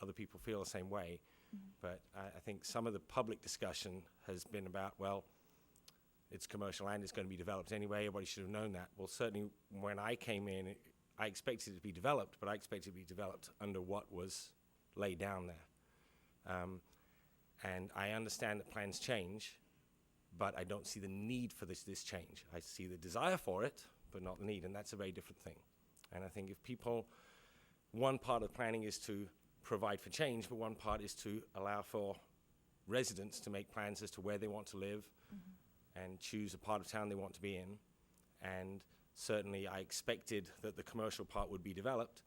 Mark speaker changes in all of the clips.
Speaker 1: other people feel the same way. But I, I think some of the public discussion has been about, well, it's commercial and it's going to be developed anyway. Everybody should have known that. Well, certainly when I came in, it, I expected it to be developed, but I expected it to be developed under what was laid down there. Um, and I understand that plans change, but I don't see the need for this this change. I see the desire for it, but not the need, and that's a very different thing. And I think if people, one part of planning is to provide for change, but one part is to allow for residents to make plans as to where they want to live and choose a part of town they want to be in. And certainly, I expected that the commercial part would be developed,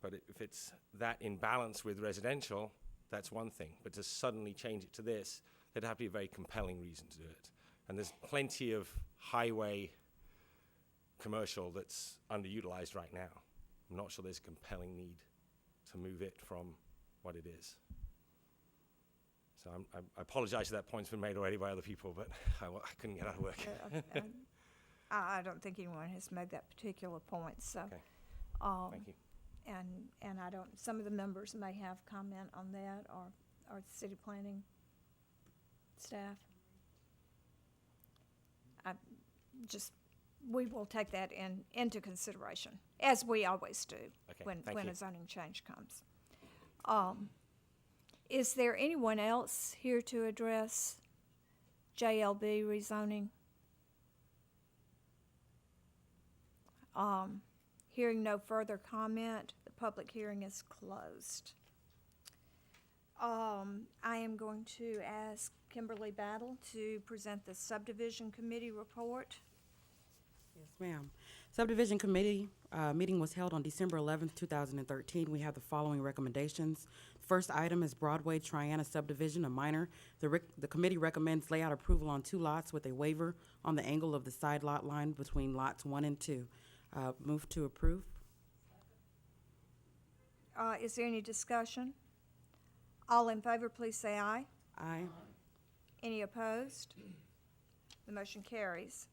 Speaker 1: but i- if it's that in balance with residential, that's one thing. But to suddenly change it to this, there'd have to be a very compelling reason to do it. And there's plenty of highway commercial that's underutilized right now. I'm not sure there's a compelling need to move it from what it is. So I'm, I, I apologize if that point's been made already by other people, but I, wa- I couldn't get out of work.
Speaker 2: Uh, I- I I don't think anyone has made that particular point, so.
Speaker 1: Okay.
Speaker 2: um,
Speaker 1: Thank you.
Speaker 2: And, and I don't, some of the members may have comment on that or, or the city planning staff. I just, we will take that in, into consideration, as we always do.
Speaker 1: Okay,
Speaker 2: When,
Speaker 1: thank
Speaker 2: when
Speaker 1: you.
Speaker 2: a zoning change comes. Um, is there anyone else here to address JLB rezoning? Um, Hearing no further comment, the public hearing is closed. Um, I am going to ask Kimberly Battle to present the subdivision committee report.
Speaker 3: Yes, ma'am. Subdivision Committee uh, meeting was held on December 11th, 2013. We have the following recommendations. First item is Broadway Triana subdivision, a minor. The rec- the committee recommends layout approval on two lots with a waiver on the angle of the side lot line between lots one and two. Uh, Move to approve.
Speaker 2: Uh, is there any discussion? All in favor, please say aye.
Speaker 3: Aye.
Speaker 2: Any opposed? The motion carries.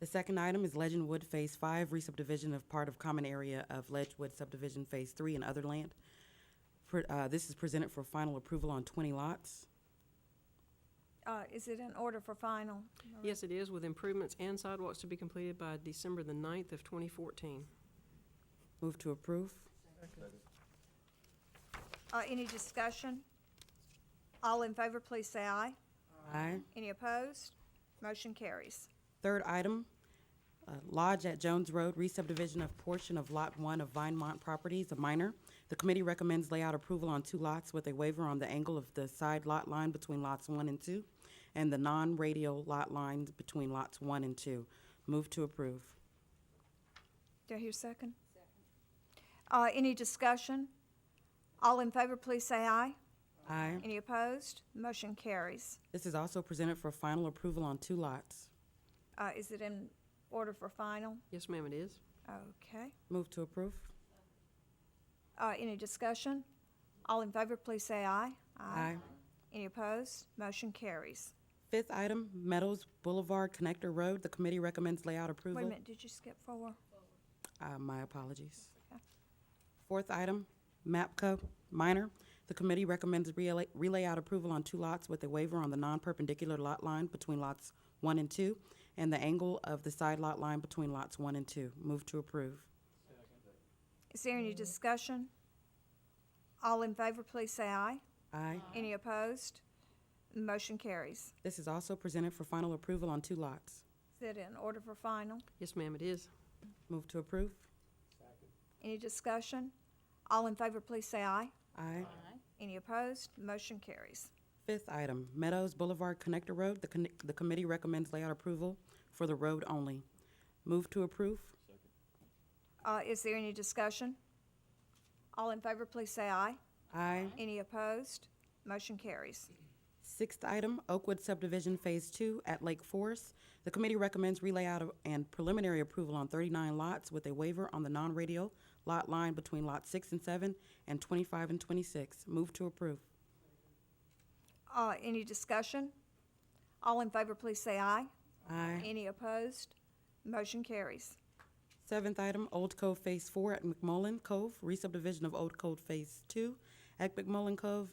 Speaker 3: The second item is Legend Phase Five, re-subdivision of part of common area of Ledgewood subdivision Phase Three and other land. Pre- uh, This is presented for final approval on 20 lots.
Speaker 2: Uh, is it in order for final?
Speaker 4: Yes, it is, with improvements and sidewalks to be completed by December the 9th of 2014.
Speaker 3: Move to approve.
Speaker 2: Uh, any discussion? All in favor, please say aye.
Speaker 3: Aye.
Speaker 2: Any opposed? Motion carries.
Speaker 3: Third item, uh, Lodge at Jones Road, re-subdivision of portion of Lot 1 of Vinemont Properties, a minor. The committee recommends layout approval on two lots with a waiver on the angle of the side lot line between lots 1 and 2, and the non-radial lot lines between lots 1 and 2. Move to approve.
Speaker 2: Do I hear a second? Uh, any discussion? All in favor, please say aye.
Speaker 3: Aye.
Speaker 2: Any opposed? Motion carries.
Speaker 3: This is also presented for final approval on two lots.
Speaker 2: Uh, is it in order for final?
Speaker 4: Yes, ma'am, it is.
Speaker 2: Okay.
Speaker 3: Move to approve.
Speaker 2: Uh, any discussion? All in favor, please say aye. Any opposed? Motion carries.
Speaker 3: Fifth item, Meadows Boulevard Connector Road. The committee recommends layout approval.
Speaker 2: Wait a minute, did you skip four?
Speaker 3: Uh, my apologies.
Speaker 2: Okay.
Speaker 3: Fourth item, MAPCO minor. The committee recommends relay, relayout approval on two lots with a waiver on the non-perpendicular lot line between lots one and two and the angle of the side lot line between lots one and two. Move to approve.
Speaker 2: Is there
Speaker 3: Mm-hmm.
Speaker 2: any discussion? All in favor, please say aye.
Speaker 3: Aye.
Speaker 2: Any opposed? Motion carries.
Speaker 3: This is also presented for final approval on two lots.
Speaker 2: Is it in order for final?
Speaker 4: Yes, ma'am, it is.
Speaker 3: Move to approve.
Speaker 2: Any discussion? All in favor, please say aye.
Speaker 3: Aye.
Speaker 2: Any opposed? Motion carries.
Speaker 3: Fifth item, Meadows Boulevard Connector Road. The, con- the committee recommends layout approval for the road only. Move to approve.
Speaker 2: Uh, is there any discussion? All in favor, please say aye.
Speaker 3: Aye.
Speaker 2: Any opposed? Motion carries.
Speaker 3: Sixth item, Oakwood subdivision Phase Two at Lake Forest. The committee recommends relayout of- and preliminary approval on thirty-nine lots with a waiver on the non-radio lot line between lots six and seven and twenty-five and twenty-six. Move to approve.
Speaker 2: Uh, any discussion? All in favor, please say aye.
Speaker 3: Aye.
Speaker 2: Any opposed? Motion carries.
Speaker 3: Seventh item, Old Cove Phase Four at McMullen Cove, re-subdivision of Old Cove Phase Two At McMullen Cove